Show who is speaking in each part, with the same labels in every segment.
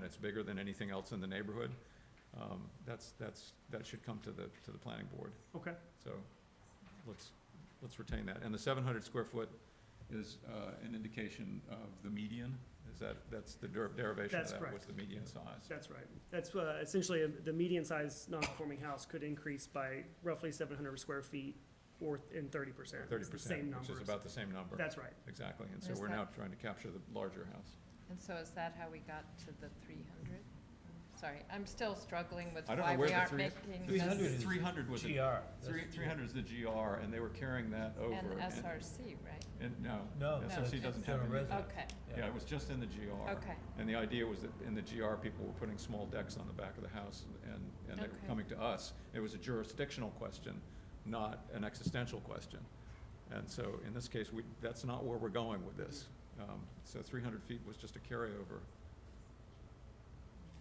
Speaker 1: that's bigger than anything else in the neighborhood, um, that's, that's, that should come to the, to the planning board.
Speaker 2: Okay,
Speaker 1: So let's, let's retain that. And the seven hundred square foot is uh, an indication of the median? Is that, that's the der- derivation of
Speaker 2: That's
Speaker 1: that?
Speaker 2: correct.
Speaker 1: What's the median size?
Speaker 2: that's right. That's uh, essentially, uh, the median size non-conforming house could increase by roughly seven hundred square feet or in thirty percent.
Speaker 1: Thirty percent, which is about the same number.
Speaker 2: That's right.
Speaker 1: Exactly. And so
Speaker 3: Is
Speaker 1: we're
Speaker 3: that-
Speaker 1: now trying to capture the larger house.
Speaker 3: And so is that how we got to the three hundred? Sorry, I'm still struggling with
Speaker 1: I don't know
Speaker 3: why
Speaker 1: where
Speaker 3: we
Speaker 1: the
Speaker 3: aren't
Speaker 1: three-
Speaker 3: making
Speaker 1: Three hundred was
Speaker 3: this
Speaker 4: GR.
Speaker 1: the,
Speaker 4: that's-
Speaker 1: three, three hundred is the GR, and they were carrying that over.
Speaker 3: an
Speaker 1: and-
Speaker 3: SRC, right?
Speaker 1: And, no.
Speaker 4: No,
Speaker 3: No,
Speaker 1: SRC
Speaker 3: it's
Speaker 1: doesn't have
Speaker 4: general
Speaker 1: any.
Speaker 4: residence. Yeah.
Speaker 3: Okay,
Speaker 1: Yeah, it was just in the GR.
Speaker 3: okay,
Speaker 1: And the idea was that in the GR, people were putting small decks on the back of the house, and, and they were
Speaker 3: Okay.
Speaker 1: coming to us. It was a jurisdictional question, not an existential question. And so in this case, we, that's not where we're going with this. Um, So three hundred feet was just a carryover.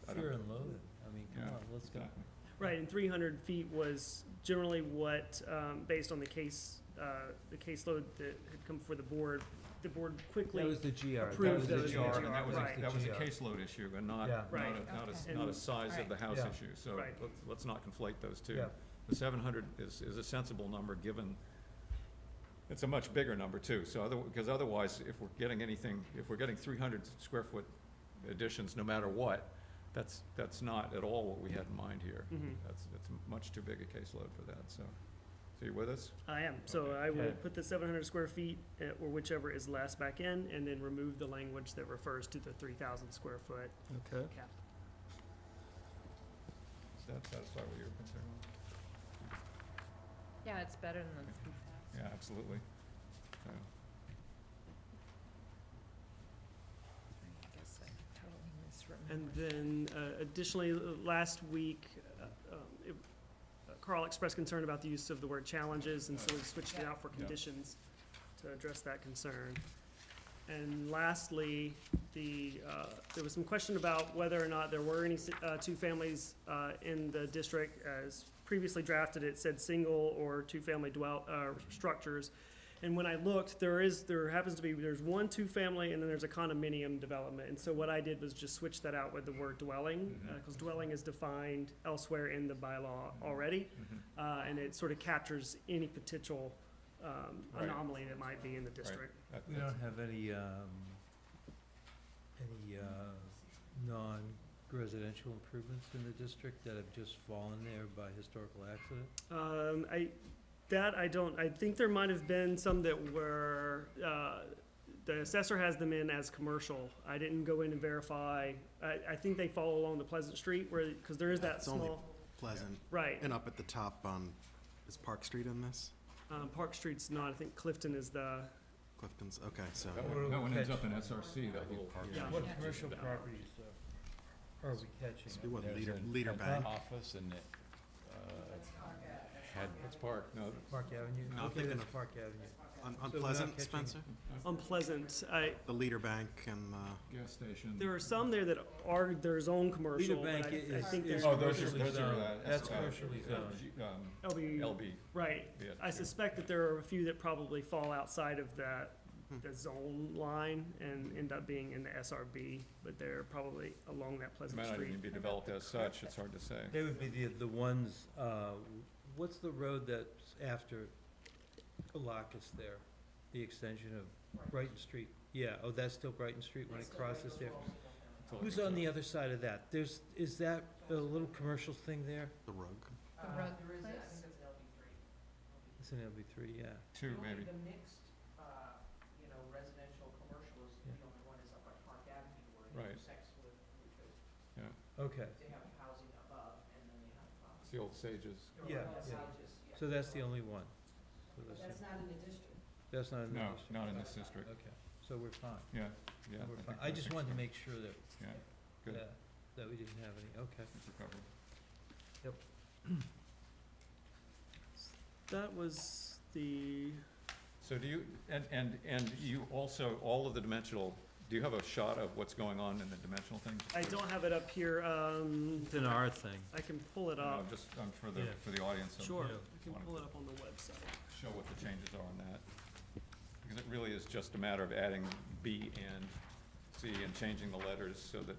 Speaker 1: I don't-
Speaker 4: Fear and loathing, I mean, come
Speaker 1: Yeah,
Speaker 4: on, let's go.
Speaker 1: Exactly.
Speaker 2: Right, and three hundred feet was generally what, um, based on the case, uh, the caseload that had come before the board, the board
Speaker 4: That
Speaker 2: quickly,
Speaker 4: was the GR. that
Speaker 2: approved
Speaker 4: was
Speaker 1: That was
Speaker 2: those
Speaker 1: the GR, and that was,
Speaker 2: Right.
Speaker 1: a- that was a
Speaker 4: GR.
Speaker 1: caseload issue, and not,
Speaker 4: Yeah.
Speaker 1: not a,
Speaker 2: Right.
Speaker 1: not a,
Speaker 3: Okay.
Speaker 1: not a size of
Speaker 3: Alright.
Speaker 1: the house
Speaker 4: Yeah.
Speaker 1: issue. So
Speaker 2: Right.
Speaker 1: let's, let's not conflate those two.
Speaker 4: Yeah.
Speaker 1: The seven hundred is, is a sensible number, given, it's a much bigger number too, so other, because otherwise, if we're getting anything, if we're getting three hundred square foot additions, no matter what, that's, that's not at all what we had in mind here.
Speaker 2: Mhm.
Speaker 1: That's, that's much too big a caseload for that, so. So you with us?
Speaker 2: I am, so I will
Speaker 4: Okay.
Speaker 2: put the seven hundred square feet, uh, or whichever is less back in, and then remove the language that refers to the three thousand square foot
Speaker 4: Okay.
Speaker 2: cap.
Speaker 1: Does that satisfy what you were considering?
Speaker 3: yeah, it's better than the three thousand.
Speaker 1: Yeah, absolutely. So,
Speaker 3: I guess I totally
Speaker 2: And
Speaker 3: misremembered.
Speaker 2: then uh, additionally, uh, last week, uh, um, it- uh, Carl expressed concern about the use of the word challenges, and so we switched it out for
Speaker 1: Yeah.
Speaker 2: conditions to address that concern. And lastly, the, uh, there was some question about whether or not there were any si- uh, two families uh, in the district. As previously drafted, it said single or two-family dwell, uh, structures. And when I looked, there is, there happens to be, there's one two-family and then there's a condominium development. And so what I did was just switch that out with the word dwelling,
Speaker 1: Mhm.
Speaker 2: because dwelling is defined elsewhere in the bylaw
Speaker 1: Mhm.
Speaker 2: already.
Speaker 1: mhm.
Speaker 2: uh, And it sort of captures any potential um,
Speaker 1: Right.
Speaker 2: anomaly that might be in the district.
Speaker 1: That-
Speaker 4: We
Speaker 1: that's-
Speaker 4: don't have any, um, any, uh, non-residential improvements in the district that have just fallen there by historical accident?
Speaker 2: Um, I, that I don't, I think there might have been some that were, uh, the assessor has them in as commercial. I didn't go in and verify. I, I think they follow along the Pleasant Street where, because there is that
Speaker 5: It's only-
Speaker 2: small,
Speaker 5: Pleasant.
Speaker 2: right.
Speaker 5: And up at the top, um, is Park Street in this?
Speaker 2: Um, Park Street's not, I think Clifton is the,
Speaker 5: Clifton's, okay, so.
Speaker 1: That one, that one ends up in SRC, that little part.
Speaker 2: Yeah.
Speaker 4: What
Speaker 3: Yeah.
Speaker 4: commercial properties uh, are we catching?
Speaker 5: It'd be what,
Speaker 6: There's
Speaker 5: leader,
Speaker 6: a-
Speaker 5: leader
Speaker 6: an
Speaker 5: bank?
Speaker 6: Office and it, uh, had,
Speaker 1: It's part, no,
Speaker 4: Park Avenue?
Speaker 5: No, I'm
Speaker 4: Okay,
Speaker 5: thinking
Speaker 4: that's
Speaker 5: of-
Speaker 4: Park Avenue.
Speaker 5: On,
Speaker 4: So
Speaker 5: on
Speaker 4: we're not
Speaker 5: Pleasant,
Speaker 4: catching-
Speaker 5: Spencer?
Speaker 2: on Pleasant. I,
Speaker 5: The leader bank and, uh,
Speaker 1: gas station.
Speaker 2: there are some there that are their own commercial,
Speaker 4: Leader
Speaker 2: but I,
Speaker 4: Bank
Speaker 2: I
Speaker 4: is,
Speaker 2: think
Speaker 4: is
Speaker 2: there's
Speaker 1: Oh, those are,
Speaker 4: commercially
Speaker 1: those are,
Speaker 4: zoned,
Speaker 1: uh,
Speaker 4: that's
Speaker 1: uh,
Speaker 4: commercially
Speaker 1: uh,
Speaker 4: zoned.
Speaker 1: G- um,
Speaker 2: LB,
Speaker 1: LB,
Speaker 2: right.
Speaker 1: yeah.
Speaker 2: I suspect that there are a few that probably fall outside of that,
Speaker 4: Hmm.
Speaker 2: the zone line and end up being in the SRB, but they're probably along that
Speaker 1: It
Speaker 2: Pleasant
Speaker 1: might not even
Speaker 2: Street.
Speaker 1: be developed as such, it's hard to say.
Speaker 4: They would be the, the ones, uh, what's the road that's after Colacas there? The extension of Brighton Street? Yeah, oh, that's still Brighton Street when it crosses there?
Speaker 1: It's all
Speaker 4: Who's
Speaker 1: good.
Speaker 4: on the other side of that? There's, is that a little commercial thing there?
Speaker 5: the rug.
Speaker 3: The rug place?
Speaker 4: It's an LB three, yeah.
Speaker 1: Two, maybe.
Speaker 4: Yeah.
Speaker 1: Right.
Speaker 4: Okay,
Speaker 1: It's the old Sages.
Speaker 4: yeah, yeah. So that's the only one? So
Speaker 3: That's
Speaker 4: not in the district? That's not in the
Speaker 1: No,
Speaker 4: district?
Speaker 1: not in this district,
Speaker 4: Okay, so we're fine.
Speaker 1: yeah, yeah.
Speaker 4: We're
Speaker 1: think-
Speaker 4: fine. I just
Speaker 1: think
Speaker 4: wanted to
Speaker 1: so.
Speaker 4: make sure that,
Speaker 1: Yeah, good,
Speaker 4: that, that we didn't have any, okay.
Speaker 1: it's recovered.
Speaker 2: That was the,
Speaker 1: So do you, and, and, and you also, all of the dimensional, do you have a shot of what's going on in the dimensional things?
Speaker 2: I don't have it up here, um,
Speaker 4: It's an R thing.
Speaker 2: I can pull it
Speaker 1: No,
Speaker 2: up,
Speaker 1: just, um, for the,
Speaker 4: Yeah.
Speaker 1: for the audience. I'm-
Speaker 2: sure,
Speaker 4: yeah.
Speaker 2: I can pull it up on the website.
Speaker 1: show what the changes are on that. Because it really is just a matter of adding B and C and changing the letters so that